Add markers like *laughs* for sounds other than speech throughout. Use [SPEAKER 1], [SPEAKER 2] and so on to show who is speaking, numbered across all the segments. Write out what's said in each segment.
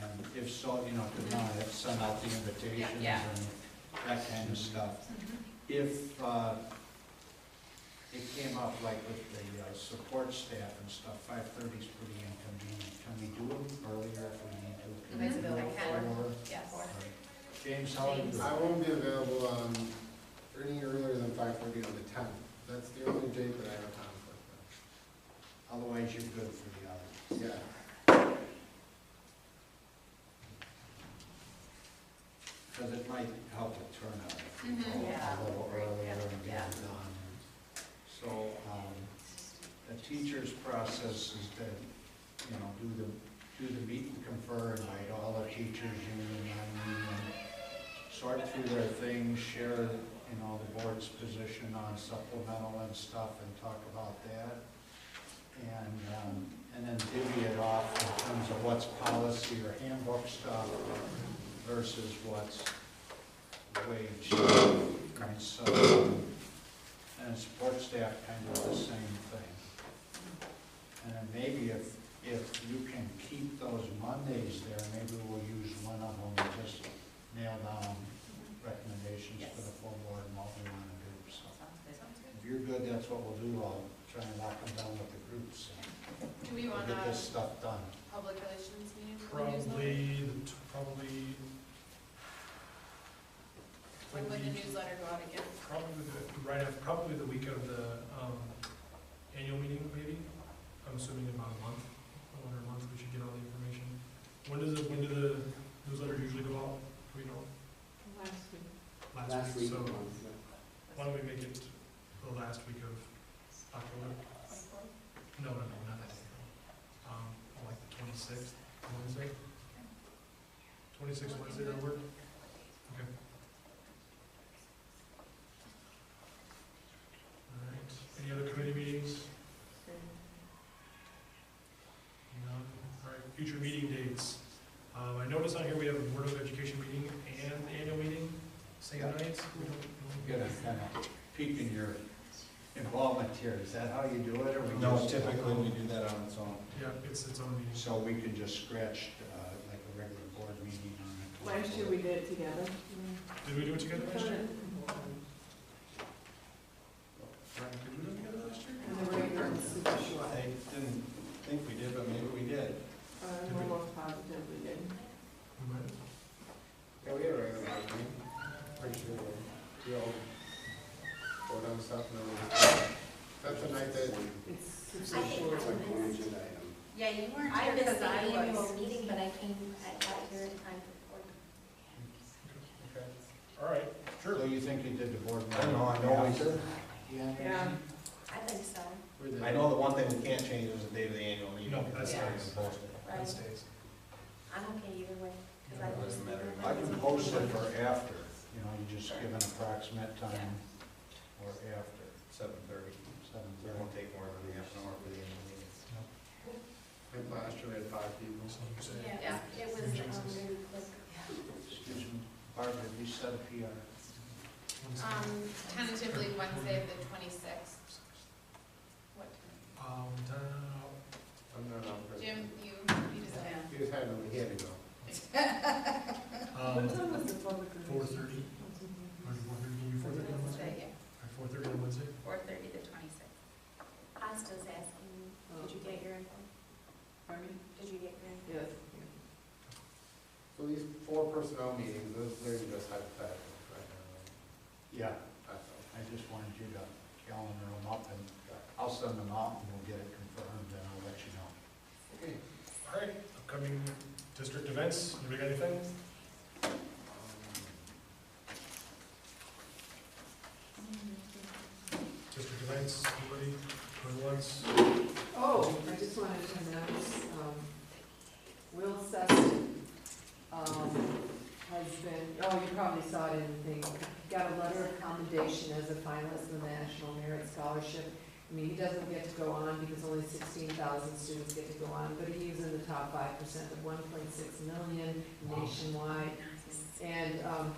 [SPEAKER 1] And if so, you know, to not have sent out the invitations and
[SPEAKER 2] Yeah.
[SPEAKER 1] that kind of stuff.
[SPEAKER 3] Mm-hmm.
[SPEAKER 1] If uh, it came up like with the uh, support staff and stuff, five thirty's pretty inconvenient. Can we do it earlier if we need to? Can we do
[SPEAKER 2] Availability.
[SPEAKER 1] it
[SPEAKER 2] I can.
[SPEAKER 1] for-
[SPEAKER 2] Yes.
[SPEAKER 1] all right. James, how are you?
[SPEAKER 2] James.
[SPEAKER 4] I won't be available on, any earlier than five thirty on the tenth. That's the only date that I have conflict
[SPEAKER 1] Otherwise, you're good for the other.
[SPEAKER 4] with. Yeah.
[SPEAKER 1] Because it might help it turn out if we
[SPEAKER 2] Mhm.
[SPEAKER 1] go
[SPEAKER 2] Yeah.
[SPEAKER 1] a little
[SPEAKER 2] Great,
[SPEAKER 1] earlier
[SPEAKER 2] yeah,
[SPEAKER 1] and get it done. So, um, the teacher's process is to, you know, do the, do the meet and confer, invite all the teachers, union, non-union, sort through their things, share, you know, the board's position on supplemental and stuff, and talk about that. And, um, and then divvy it off in terms of what's policy or handbook stuff versus what's wage. stuff. And so, um, and support staff kind of the same thing. And then maybe if, if you can keep those Mondays there, maybe we'll use one of them and just nail down recommendations for the full board and what we want to do, so.
[SPEAKER 5] Mm-hmm.
[SPEAKER 1] If you're good, that's what we'll do, I'll try and lock them down with the groups
[SPEAKER 2] Do we
[SPEAKER 1] and
[SPEAKER 2] want
[SPEAKER 1] get
[SPEAKER 2] a
[SPEAKER 1] this stuff done.
[SPEAKER 2] public relations meeting for the newsletter?
[SPEAKER 6] Probably, the t- probably,
[SPEAKER 2] When would the newsletter go out again?
[SPEAKER 6] probably, the- right after, probably the week of the um, annual meeting, maybe. I'm assuming about a month, a little under a month, we should get all the information. When does it, when do the newsletter usually go out? Do we know? Last week, so why don't we make it the last week of October? No, no, no, not that. day. Um, like the twenty-sixth, Wednesday? Twenty-sixth Wednesday, that work? Okay. All right, any other committee meetings? No, all right, future meeting dates. Um, I noticed on here we have a Board of Education meeting and annual meeting, same
[SPEAKER 1] Yeah.
[SPEAKER 6] nights. We don't- we
[SPEAKER 1] Get
[SPEAKER 6] don't-
[SPEAKER 1] a kind of peek in your involvement here, is that how you do it, or we
[SPEAKER 7] No,
[SPEAKER 1] just-
[SPEAKER 7] typically we do that on its own.
[SPEAKER 6] Yeah, it's its own meeting.
[SPEAKER 1] So we can just scratch, uh, like a regular board meeting on it.
[SPEAKER 3] Last year we did it together.
[SPEAKER 6] Did we do it together last year?
[SPEAKER 3] And
[SPEAKER 6] Right, Did we do it together last year?
[SPEAKER 3] the regular was super short.
[SPEAKER 7] I didn't think we did, but maybe we did.
[SPEAKER 3] Uh, we're both positive we did.
[SPEAKER 6] We might have.
[SPEAKER 4] Yeah, we had a regular meeting. Pretty sure we- we all vote on stuff and then we just. That's the night that.
[SPEAKER 3] It's
[SPEAKER 5] I
[SPEAKER 3] super
[SPEAKER 5] think
[SPEAKER 3] short.
[SPEAKER 5] I missed,
[SPEAKER 2] Yeah, you
[SPEAKER 5] I
[SPEAKER 2] I
[SPEAKER 5] missed the
[SPEAKER 2] I
[SPEAKER 5] annual
[SPEAKER 2] was.
[SPEAKER 5] meeting, but I came, I got here in time for board.
[SPEAKER 6] Okay, all right, sure.
[SPEAKER 1] So you think you did the board
[SPEAKER 7] I
[SPEAKER 1] meeting?
[SPEAKER 7] don't know, I know we did.
[SPEAKER 1] Yeah.
[SPEAKER 3] Yeah.
[SPEAKER 5] I think so.
[SPEAKER 4] we did.
[SPEAKER 7] I know the one thing we can't change is the date of the annual meeting.
[SPEAKER 6] No, that's
[SPEAKER 7] not
[SPEAKER 6] nice. That
[SPEAKER 5] Right.
[SPEAKER 6] stays.
[SPEAKER 5] I'm okay either way,
[SPEAKER 7] Yeah,
[SPEAKER 5] because
[SPEAKER 7] it
[SPEAKER 5] I
[SPEAKER 7] doesn't
[SPEAKER 5] missed.
[SPEAKER 7] matter.
[SPEAKER 5] the-
[SPEAKER 1] I can post it for after, you know, you just give an approximate time or after,
[SPEAKER 7] Seven thirty.
[SPEAKER 1] seven
[SPEAKER 7] It
[SPEAKER 1] thirty.
[SPEAKER 7] won't take more than half an hour for the annual meeting.
[SPEAKER 4] Like last year we had five people.
[SPEAKER 6] So you say-
[SPEAKER 5] Yeah, it was, um,
[SPEAKER 6] Jesus.
[SPEAKER 5] really quick.
[SPEAKER 1] Excuse me, Barbara, have you set a PR?
[SPEAKER 2] Um, tentatively Wednesday, the twenty-sixth. What time?
[SPEAKER 6] Um, da-
[SPEAKER 4] I'm not on for.
[SPEAKER 2] Jim, you, you decide.
[SPEAKER 4] He was having, he had to go.
[SPEAKER 5] *laughs*
[SPEAKER 3] What
[SPEAKER 6] Um,
[SPEAKER 3] time was the public?
[SPEAKER 6] four
[SPEAKER 3] release?
[SPEAKER 6] thirty, or four thirty, can you four thirty on Wednesday? Four thirty on Wednesday?
[SPEAKER 2] Four thirty, the twenty-sixth.
[SPEAKER 5] Asta's asking, me, did you get your info?
[SPEAKER 3] Pardon me?
[SPEAKER 5] Did you get your info?
[SPEAKER 3] Yes.
[SPEAKER 4] So these four personnel meetings, those, they're just hypothetical right now.
[SPEAKER 1] Yeah,
[SPEAKER 4] That's all.
[SPEAKER 1] I just wanted you to calendar them up and I'll send them out and we'll get it confirmed and I'll let you know.
[SPEAKER 4] Okay.
[SPEAKER 6] All right, upcoming district events, anybody got anything?
[SPEAKER 4] Um,
[SPEAKER 6] District events, anybody, going once?
[SPEAKER 3] Oh, I just wanted to announce, um, Will Sessom, um, has been, oh, you probably saw it in the thing, got a letter of commendation as a finalist in the National Merit Scholarship. I mean, he doesn't get to go on because only sixteen thousand students get to go on, but he was in the top five percent of one point six million nationwide. And um,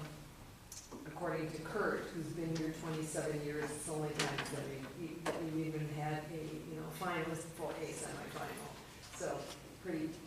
[SPEAKER 3] according to Kurt, who's been here twenty-seven years, it's the only time that we, that we even had a, you know, finalist for a semifinal. So pretty,